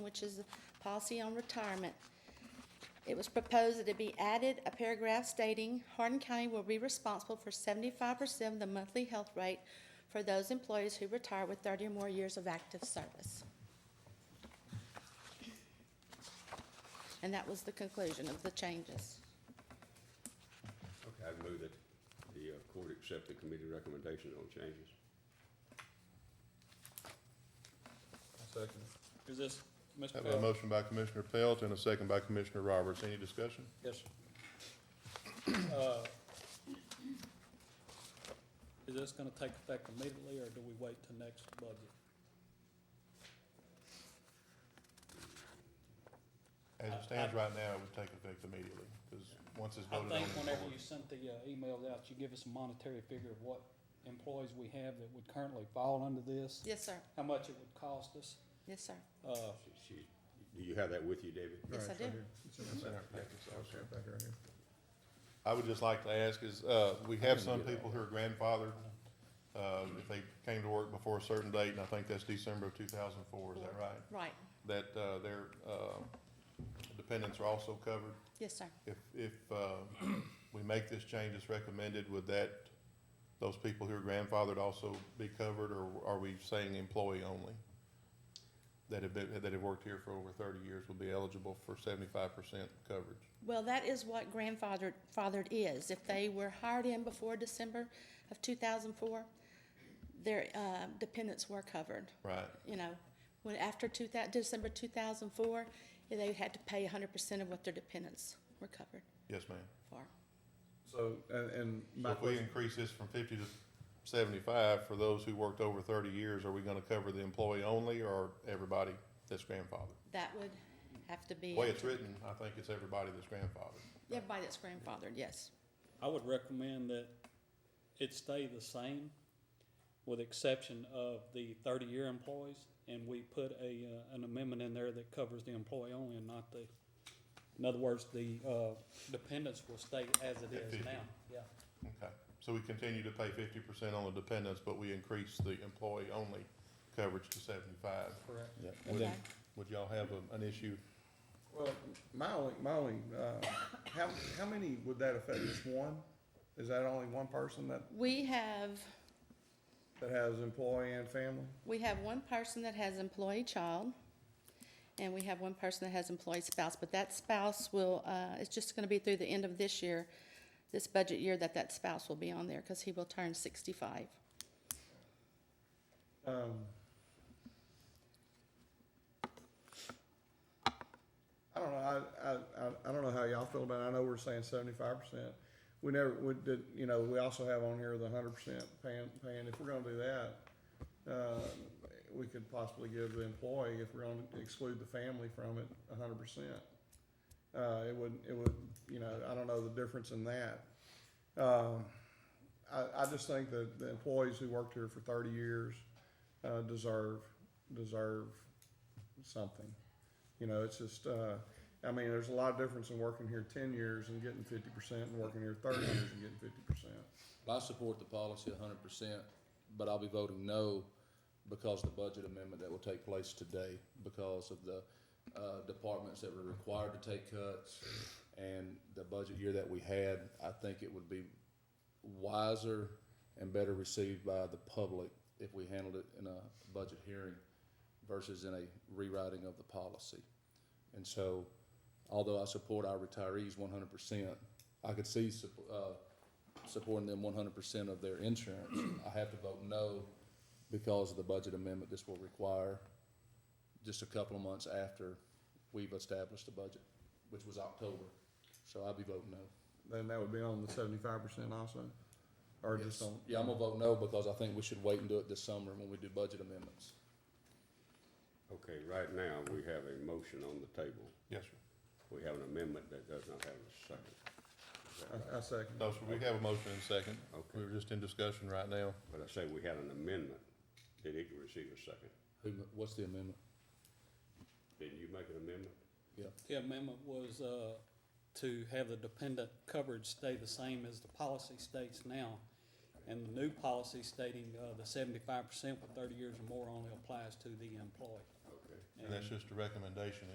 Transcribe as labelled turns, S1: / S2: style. S1: which is the policy on retirement. It was proposed that it be added a paragraph stating Hardin County will be responsible for seventy-five percent of the monthly health rate for those employees who retire with thirty or more years of active service. And that was the conclusion of the changes.
S2: Okay, I move that the uh, court accept the committee recommendation on changes.
S3: Second.
S4: Is this, Mr.
S3: Have a
S4: Pell?
S3: motion by Commissioner Pelt and a second by Commissioner Roberts. Any discussion?
S4: Yes. sir. Uh, Is this gonna take effect immediately, or do we wait till next budget?
S3: As it stands right now, it would take effect immediately, because once it's
S4: I
S3: voted on.
S4: think
S3: it's
S4: whenever
S3: voted.
S4: you sent the uh, emails out, you give us a monetary figure of what employees we have that would currently fall under this,
S1: Yes, sir.
S4: how much it would cost us.
S1: Yes, sir.
S4: Uh,
S2: She- she- Do you have that with you, David?
S1: Yes, I do.
S3: It's in our package, so I'll share it back around here. I would just like to ask is, uh, we have some people who are grandfathered, uh, if they came to work before a certain date, and I think that's December of two thousand and four, is that right?
S1: Right.
S3: That, uh, their, uh, dependents are also covered.
S1: Yes, sir.
S3: If, if, uh, we make this change as recommended, would that, those people who are grandfathered also be covered, or are we saying employee only? That have been, that have worked here for over thirty years will be eligible for seventy-five percent coverage?
S1: Well, that is what grandfathered, fathered is. If they were hired in before December of two thousand four, their, uh, dependents were covered,
S3: Right,
S1: you know. When, after two thou, December two thousand four, they had to pay hundred percent of what their dependents were covered
S3: yes, ma'am.
S1: for.
S5: So, and, and
S3: So
S5: my
S3: if we
S5: question,
S3: increase this from fifty to seventy-five for those who worked over thirty years, are we gonna cover the employee only, or everybody that's grandfathered?
S1: That would have to
S3: The
S1: be,
S3: way it's written, I think it's everybody that's grandfathered.
S1: everybody that's grandfathered, yes.
S4: I would recommend that it stay the same, with exception of the thirty-year employees, and we put a, uh, an amendment in there that covers the employee only and not the, in other words, the, uh, dependents will stay as it
S3: At
S4: is
S3: 50.
S4: now, yeah.
S3: Okay, so we continue to pay fifty percent on the dependents, but we increase the employee-only coverage to seventy-five.
S4: Correct.
S3: And then,
S1: Okay.
S3: would y'all have a- an issue?
S5: well, my only, my only, uh, how, how many would that affect? Just one? Is that only one person that,
S1: We have,
S5: that has employee and family?
S1: we have one person that has employee child, and we have one person that has employee spouse, but that spouse will, uh, it's just gonna be through the end of this year, this budget year, that that spouse will be on there, cause he will turn sixty-five.
S5: Um, I don't know, I, I, I, I don't know how y'all feel about it. I know we're saying seventy-five percent. We never, we did, you know, we also have on here the hundred percent paying, paying. If we're gonna do that, uh, we could possibly give the employee, if we're gonna exclude the family from it, hundred percent. Uh, it would, it would, you know, I don't know the difference in that. Um, I, I just think that the employees who worked here for thirty years, uh, deserve deserve something. You know, it's just uh, I mean, there's a lot of difference in working here ten years and getting fifty percent, and working here thirty years and getting fifty percent.
S6: I support the policy hundred percent, but I'll be voting no because the budget amendment that will take place today, because of the, uh, departments that were required to take cuts and the budget year that we had, I think it would be wiser and better received by the public if we handled it in a budget hearing versus in a rewriting of the policy. And so, although I support our retirees one hundred percent, I could see, sup- uh, supporting them one hundred percent of their insurance. I have to vote no because of the budget amendment this will require just a couple of months after we've established the budget, which was October. So I'll be voting no.
S5: Then that would be on the seventy-five percent also, or just
S6: Yes.
S5: on.
S6: Yeah, I'm gonna vote no because I think we should wait and do it this summer when we do budget amendments.
S2: Okay, right now, we have a motion on the table.
S3: Yes, sir.
S2: We have an amendment that does not have a second. Is that right?
S5: I, I second.
S3: No, sir, we have a motion and a second.
S2: Okay.
S3: We're just in discussion right now.
S2: But I say we had an amendment. Did it receive a second?
S6: Who, what's the amendment?
S2: Didn't you make an amendment?
S4: The amendment was, uh, to have the dependent coverage stay the same as the policy states now. And the new policy stating, uh, the seventy-five percent with thirty years or more only applies to the employee.
S2: Okay.
S3: And that's just a recommendation.